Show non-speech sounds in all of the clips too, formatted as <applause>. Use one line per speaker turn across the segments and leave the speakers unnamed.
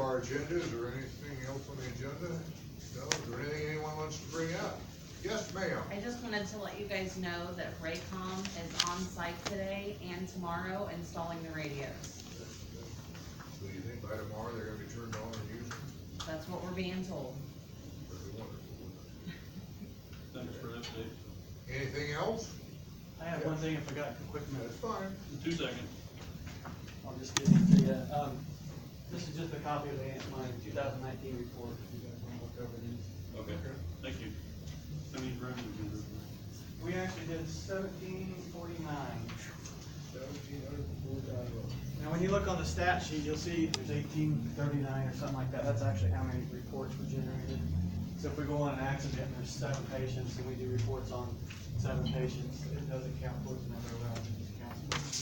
our agenda, is there anything else on the agenda? No, is there anything anyone wants to bring up? Yes, ma'am.
I just wanted to let you guys know that Raycom is on site today and tomorrow installing the radios.
Do you think by tomorrow they're gonna be turned on and used?
That's what we're being told.
That'd be wonderful, wouldn't
Thanks for that, Dave.
it? Anything else?
I have one thing I forgot, a quick note,
That's fine.
Two seconds.
I'll just give it to you. Um, this is just a copy of the- my two thousand nineteen report, if you guys wanna look over these.
Okay, thank you. I need revenue. to-
We actually did seventeen forty-nine.
Seventeen hundred and four thousand.
Now, when you look on the stat sheet, you'll see there's eighteen thirty-nine or something like that, that's actually how many reports were generated. So if we go on an accident, and there's seven patients, and we do reports on seven patients, it doesn't count towards the number of, uh, it counts towards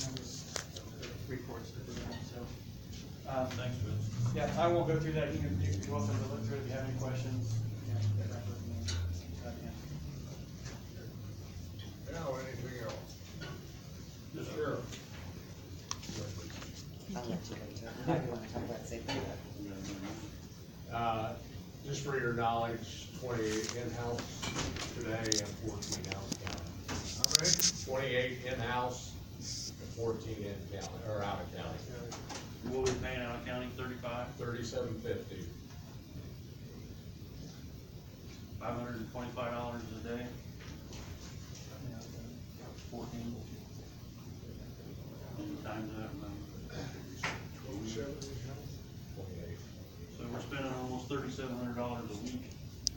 the number of reports that we have, so. um,
Thanks, Bill.
Yeah, I won't go through that, you can, you're welcome to look through it if you have any questions. you know, get back with me, uh, yeah.
Now, anything else?
Yes,
Sure.
I'll let you guys talk, I do wanna talk about safety.
Uh, Just for your knowledge, twenty-eight in-house today and fourteen out of county.
How many?
Twenty-eight in-house and fourteen in county, or out of county.
What we paying out of county, thirty-five,
Thirty-seven fifty,
five hundred and twenty-five dollars a day? Fourteen. And Times that, man.
Twenty-seven in-house?
twenty-eight.
so we're spending almost thirty-seven hundred dollars a week.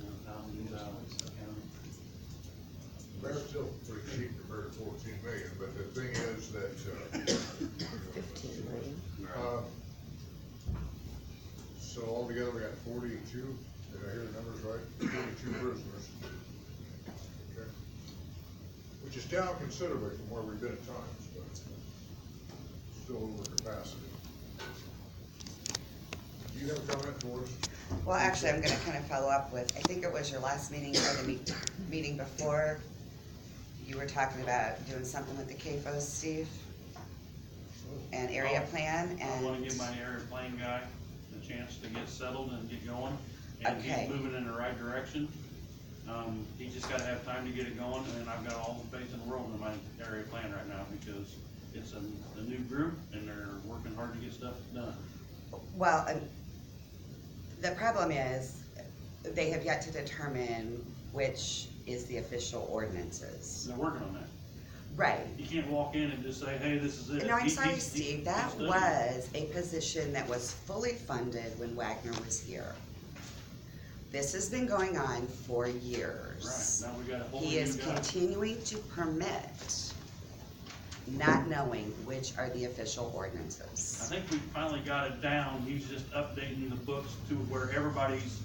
uh, Thousand dollars a county.
They're still pretty cheap compared to fourteen million, but the thing is that, uh.
Fifteen million.
uh, So altogether, we got forty-two, did I hear the numbers right? Forty-two prisoners. Okay. Which is down considerably from where we've been at times, but still over capacity. Do you have a comment for us?
Well, actually, I'm gonna kind of follow up with, I think it was your last meeting or the meet, meeting before. You were talking about doing something with the KFO, Steve. And area
Oh.
plan
I wanna give
and,
my area plane guy a chance to get settled and get going, and
Okay.
he's moving in the right direction. Um, he just gotta have time to get it going, and I've got all the faith in the world in my area plan right now, because it's a, a new group, and they're working hard to get stuff done.
well, and the problem is, they have yet to determine which is the official ordinances.
They're working on that.
Right,
You can't walk in and just say, hey, this is it.
No, I'm
He- he-
sorry,
he-
Steve,
he's
that
studying.
was a position that was fully funded when Wagner was here. This has been going on for
Right,
years.
now we got a whole new
He is
guy.
continuing to permit, not knowing which are the official
I
ordinances.
think we finally got it down, he's just updating the books to where everybody's,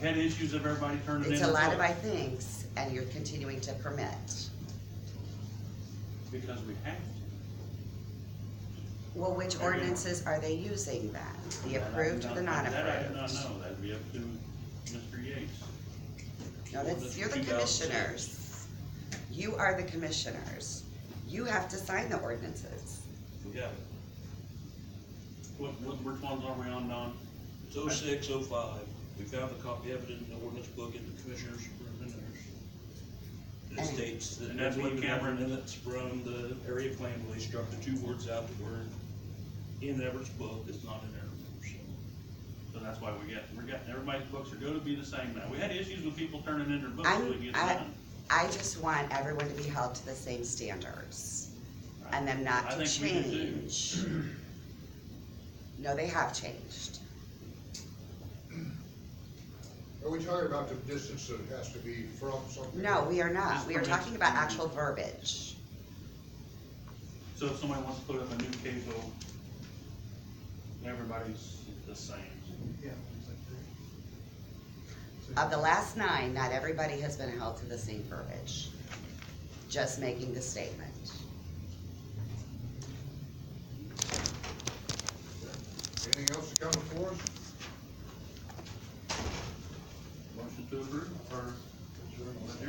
had issues of everybody turning in.
It's a lot
their
of
books.
I thinks, and you're continuing to permit.
Because we have to.
Well, which ordinances are they using then? The
That I do
approved or the
not- That I do not
non-approved?
know, that'd be up to Mr. Yates.
No, that's, you're the
2006.
commissioners. You are the commissioners. You have to sign the ordinances.
Yeah,
What, what, which ones are we on, Don?
it's oh six, oh five. We found a copy of it in the ordinance book in the commissioner's room in there. It
And-
states that
And that's what
we even have
Cameron-
minutes from the area plan, where they struck the two words out that were in Everett's book, it's not in there. so.
So that's why we got, we got, everybody's books are gonna be the same now. We had issues with people turning in their books till it
I'm,
gets
I,
done.
I just want everyone to be held to the same standards and them not
I
to
think we do too.
change.
<clears throat>
No, they have changed.
Are we talking about the distance that it has to be from something?
No, we
Just
are not. We are
permit-
talking about actual verbiage.
So if somebody wants to put up a new CAFO, everybody's the same.
Of the last nine, not everybody has been held to the same verbiage. Just making the statement.
Anything else to come before us?
Motion to approve, or? Adjourn.